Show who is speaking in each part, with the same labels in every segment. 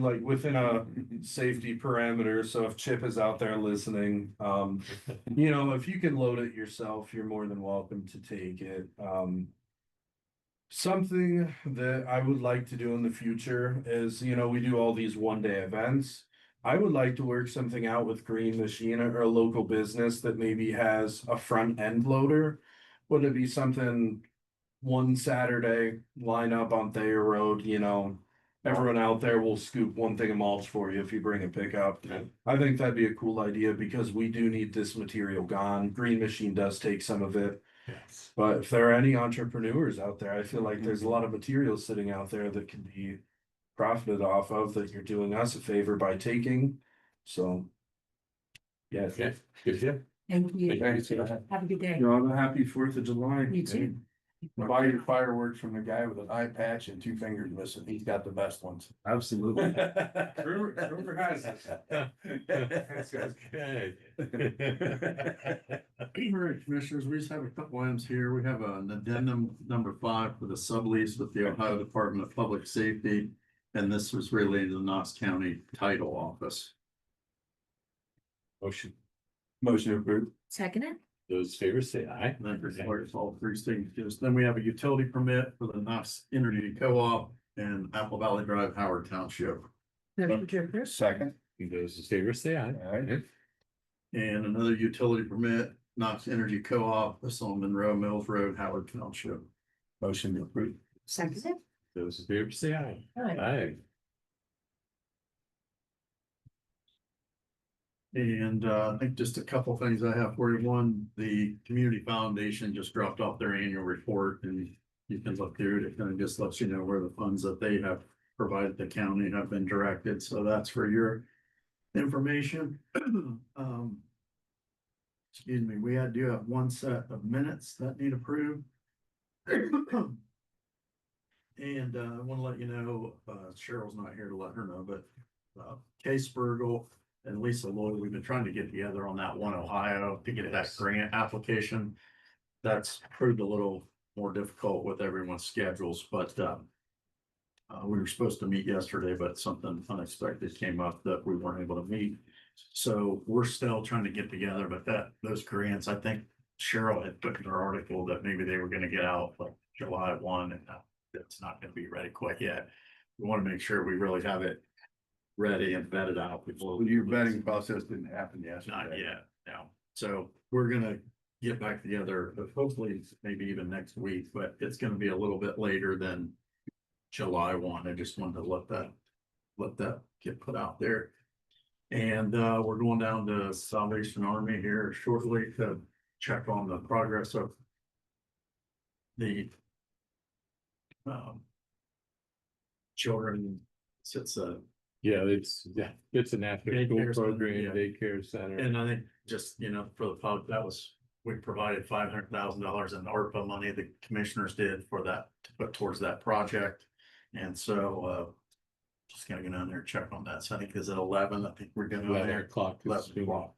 Speaker 1: like within a safety parameter, so if Chip is out there listening, um, you know, if you can load it yourself, you're more than welcome to take it, um. Something that I would like to do in the future is, you know, we do all these one-day events. I would like to work something out with Green Machine or a local business that maybe has a front-end loader. Would it be something one Saturday, line up on Thayer Road, you know? Everyone out there will scoop one thing of mulch for you if you bring a pickup.
Speaker 2: Yeah.
Speaker 1: I think that'd be a cool idea because we do need this material gone. Green Machine does take some of it.
Speaker 2: Yes.
Speaker 1: But if there are any entrepreneurs out there, I feel like there's
Speaker 3: Mm-hmm.
Speaker 1: a lot of material sitting out there that can be profited off of that you're doing us a favor by taking. So. Yes.
Speaker 2: Okay, good, yeah.
Speaker 4: Thank you.
Speaker 2: Thank you.
Speaker 4: Have a good day.
Speaker 1: You're on a happy Fourth of July.
Speaker 4: You too.
Speaker 3: Buy your fireworks from the guy with an eye patch and two fingers missing. He's got the best ones.
Speaker 1: Absolutely.
Speaker 3: Rumor,
Speaker 1: rumor has it.
Speaker 2: That's good.
Speaker 5: All right, commissioners, we just have a couple items here. We have an addendum number five for the sublease with the Ohio Department of Public Safety. And this was related to the Knox County Title Office.
Speaker 2: Motion,
Speaker 3: Motion approved.
Speaker 4: Second it?
Speaker 2: those favors say aye.
Speaker 5: And That requires all three signatures. Then we have a utility permit for the Knox Energy Co-op and Apple Valley Drive, Howard Township.
Speaker 4: Motion to approve.
Speaker 3: Second.
Speaker 2: Those in favor say aye.
Speaker 3: All right.
Speaker 5: And another utility permit, Knox Energy Co-op, this on Monroe Mills Road, Howard Township.
Speaker 3: Motion approved.
Speaker 4: Second it?
Speaker 2: Those in favor say aye.
Speaker 4: All right.
Speaker 2: Aye.
Speaker 5: And uh, I think just a couple things I have for you. One, the Community Foundation just dropped off their annual report and you can look through it. It kind of just lets you know where the funds that they have provided the county have been directed. So that's for your information. Um, Excuse me, we had, do have one set of minutes that need approved. And uh, I want to let you know, uh, Cheryl's not here to let her know, but uh, Case Burgle and Lisa Lloyd, we've been trying to get together on that one Ohio to get that grant application. That's proved a little more difficult with everyone's schedules, but um. Uh, we were supposed to meet yesterday, but something unexpected came up that we weren't able to meet. So we're still trying to get together, but that, those grants, I think Cheryl had put in her article that maybe they were gonna get out like July one and uh, that's not gonna be ready quite yet. We wanna make sure we really have it ready and vetted out before. we-
Speaker 3: Your vetting process didn't happen yesterday.
Speaker 5: not yet, no. So we're gonna get back together, but hopefully it's maybe even next week, but it's gonna be a little bit later than July one. I just wanted to let that, let that get put out there. And uh, we're going down to Salvation Army here shortly to check on the progress of the um children, it's a
Speaker 2: Yeah, it's, yeah, it's an after school
Speaker 5: Daycare center,
Speaker 2: program,
Speaker 5: yeah.
Speaker 2: daycare center.
Speaker 5: And I think just, you know, for the pub, that was, we provided five hundred thousand dollars in ARPA money the commissioners did for that, to put towards that project. And so, uh, just gonna go down there, and check on that. So I think is at eleven, I think we're gonna go
Speaker 2: Eleven
Speaker 5: there.
Speaker 2: o'clock. is-
Speaker 5: Eleven o'clock.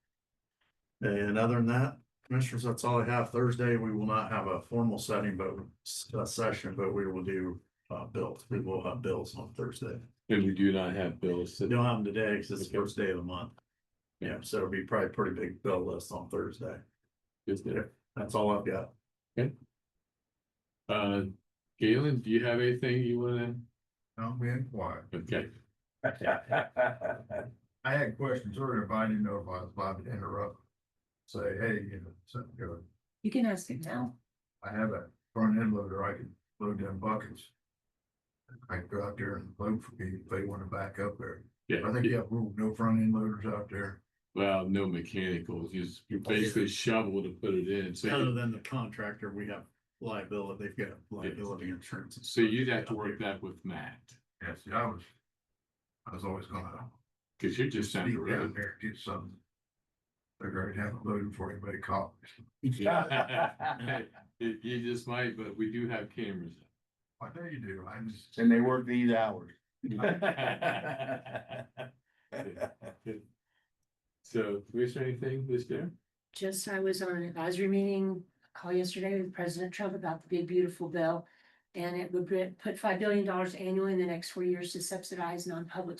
Speaker 5: And other than that, commissioners, that's all I have. Thursday, we will not have a formal setting, but a session, but we will do, uh, bills. We will have bills on Thursday.
Speaker 2: And we do not have bills. so-
Speaker 5: We Don't have them today because it's the first day of the month. Yeah, so it'll be probably a pretty big bill list on Thursday.
Speaker 2: Is there?
Speaker 5: That's all I've got.
Speaker 2: Uh, Galen, do you have anything you wanna?
Speaker 6: No, we ain't quiet.
Speaker 2: Okay,
Speaker 6: I had questions earlier, but I didn't know if I was allowed to interrupt. Say, hey, you know, something good.
Speaker 4: You can ask it now.
Speaker 6: I have a front end loader, I can load them buckets. I can go out there and load for people if they wanna back up there. I think you
Speaker 2: yeah,
Speaker 6: have rule, no front end loaders out there.
Speaker 2: well, no mechanicals, you just- you basically shovel to put it in, so.
Speaker 5: Other
Speaker 2: you-
Speaker 5: than the contractor, we have liability, they've got liability insurance. and
Speaker 2: So
Speaker 5: stuff.
Speaker 2: you'd have to work that with Matt,
Speaker 6: Yeah, see, I was. I was always gonna
Speaker 2: cause you're just down the
Speaker 6: sneak down
Speaker 2: road.
Speaker 6: there and get some. Figure I'd have it loaded before anybody caught. me.
Speaker 2: Yeah. You, you just might, but we do have cameras.
Speaker 6: I know you do, I'm just.
Speaker 3: And they work these hours.
Speaker 2: So, is there anything this there?
Speaker 4: Just, I was on an advisory meeting, call yesterday with President Trump about the big beautiful bill. And it would put five billion dollars annually in the next four years to subsidize non-public